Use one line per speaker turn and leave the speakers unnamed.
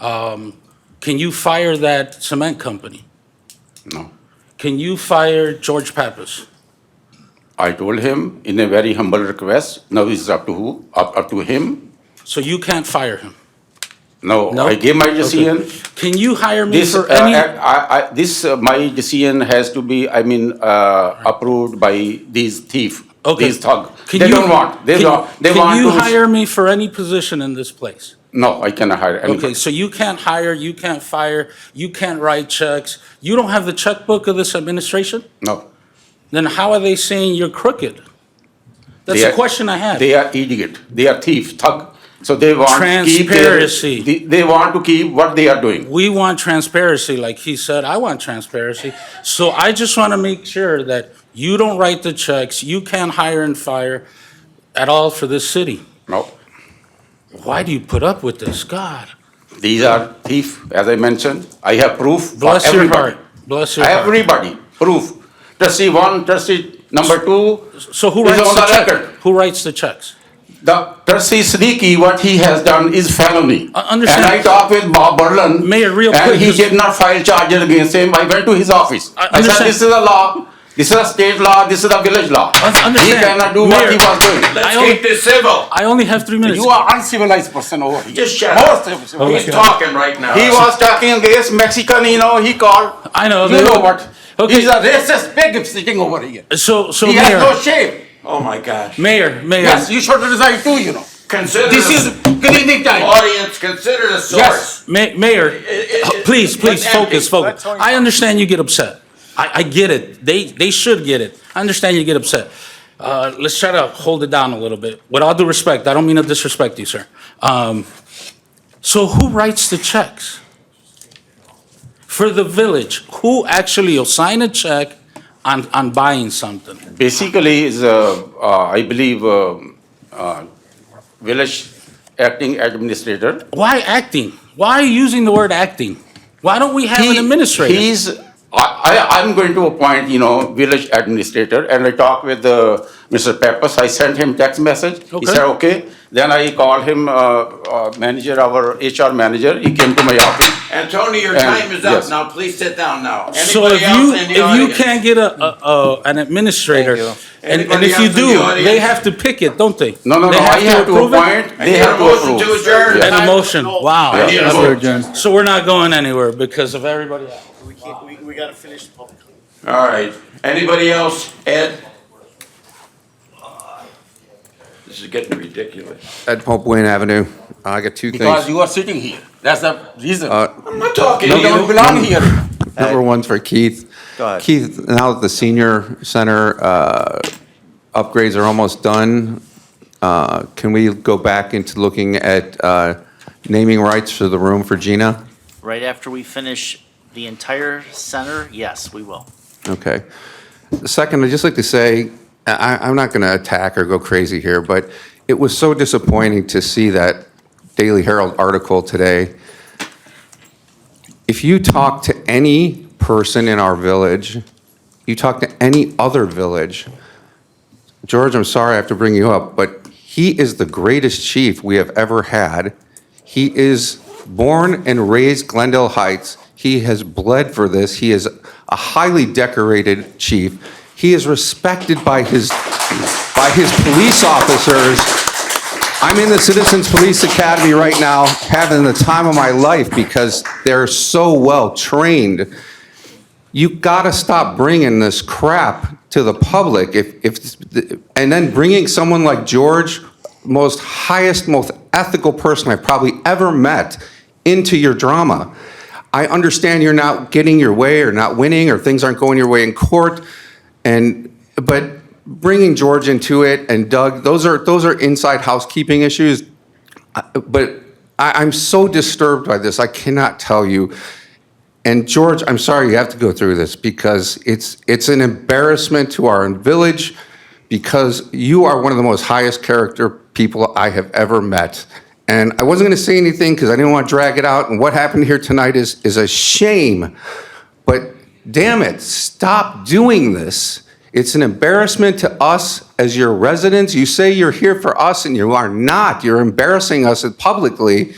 Um, Can you fire that cement company?
No.
Can you fire George Pappas?
I told him in a very humble request, now it's up to who? Up, up to him?
So you can't fire him?
No,
No?
I gave my decision.
Okay. Can you hire me
This,
for
uh,
any?
I, I, this, uh, my decision has to be, I mean, uh, approved by these thief,
Okay.
these thug.
Can
They
you-
don't want, they
can-
don't, they want
Can you
to.
hire me for any position in this place?
No, I cannot hire
Okay,
anybody.
so you can't hire, you can't fire, you can't write checks. You don't have the checkbook of this administration?
No,
Then how are they saying you're crooked? That's
They
the
are-
question I have.
they are idiot, they are thief, thug. So they want to keep their.
Transparency.
They, they want to keep what they are doing.
We want transparency, like he said, I want transparency. So I just want to make sure that you don't write the checks, you can't hire and fire at all for this city.
No,
Why do you put up with this? God,
these are thief, as I mentioned. I have proof for
bless your
everybody.
heart, bless your heart.
Everybody, proof. Trustee one, trustee number two,
So who
It's
writes
on
the
the
check?
record.
Who writes the checks?
the trustee Siddiqui, what he has done is felony.
I Uh, understand.
And I talked with Bob Berlin.
Mayor, real quick,
And he
just-
did not file charges against him. I went to his office. I
I
said,
understand.
this is a law, this is a state law, this is a village law. He
understand.
cannot do what he
Mayor,
was doing.
I Oh only-
this civil.
I only have three minutes.
You are uncivilized person over here.
Just shut up.
Most civilized.
He's talking right now.
He was talking against Mexican, you know, he called.
I know,
You
they-
know what?
Okay.
He's a racist pig sitting over here.
So, so
He has no
Mayor,
shame.
Oh my gosh.
Mayor, Mayor,
Yes, you should resign too, you know.
Consider
This is
the
cleaning time.
audience, consider the
Yes.
source.
Ma- Mayor, please, please,
let's end
focus,
it.
focus. I understand you get upset. I, I get it. They, they should get it. I understand you get upset. Uh, let's try to hold it down a little bit. With all due respect, I don't mean to disrespect you, sir. Um, so who writes the checks? For the village, who actually will sign a check on, on buying something?
Basically, is, uh, uh, I believe, um, uh, village acting administrator.
Why acting? Why are you using the word acting? Why don't we have an
He-
administrator?
He's, I, I, I'm going to appoint, you know, village administrator, and I talked with, uh, Mr. Peppers, I sent him text message. He
Okay.
said, okay. Then I called him, uh, uh, manager, our HR manager, he came to my office.
Antonio, your
And-
time is
yes.
up now. Please sit down now.
So if
Anybody else
you,
in the
if you
audience?
can't get a, a, a- an administrator, and, and
Anybody
if you
else in
do,
the audience?
they have to pick it, don't they?
No, no,
They
no, I have to
approve it?
appoint,
I
they
need a
have to
motion
approve.
to adjourn.
Yes.
An emotion,
I need a
wow.
vote.
So we're not going anywhere because of everybody else.
We can't, we, we gotta finish the public.
All right. Anybody else? Ed? This is getting ridiculous.
At Pope Wayne Avenue, Uh, I got two
Because
things.
you are sitting here, that's the reason.
Uh,
I'm not talking to
You don't
you.
belong here.
Number one's for Keith. Keith, now that the senior center uh, upgrades are almost done, uh, can we go back into looking at uh, naming rights for the room for Gina?
Right after we finish the entire center, yes, we will.
Okay. Second, I'd just like to say, I, I'm not going to attack or go crazy here, but it was so disappointing to see that Daily Herald article today. If you talk to any person in our village, you talk to any other village, George, I'm sorry I have to bring you up, but he is the greatest chief we have ever had. He is born and raised Glendale Heights. He has bled for this. He is a highly decorated chief. He is respected by his, by his police officers. I'm in the Citizens Police Academy right now, having the time of my life because they're so well-trained you gotta stop bringing this crap to the public. If, if, and then bringing someone like George, most highest, most ethical person I've probably ever met, into your drama. I understand you're not getting your way or not winning or things aren't going your way in court. And, but bringing George into it and Doug, those are, those are inside housekeeping issues but I, I'm so disturbed by this. I cannot tell you. And George, I'm sorry you have to go through this because it's it's an embarrassment to our village because you are one of the most highest character people I have ever met. And I wasn't going to say anything because I didn't want to drag it out. And what happened here tonight is is a shame. But damn it, stop doing this. It's an embarrassment to us as your residents. You say you're here for us and you are not. You're embarrassing us publicly.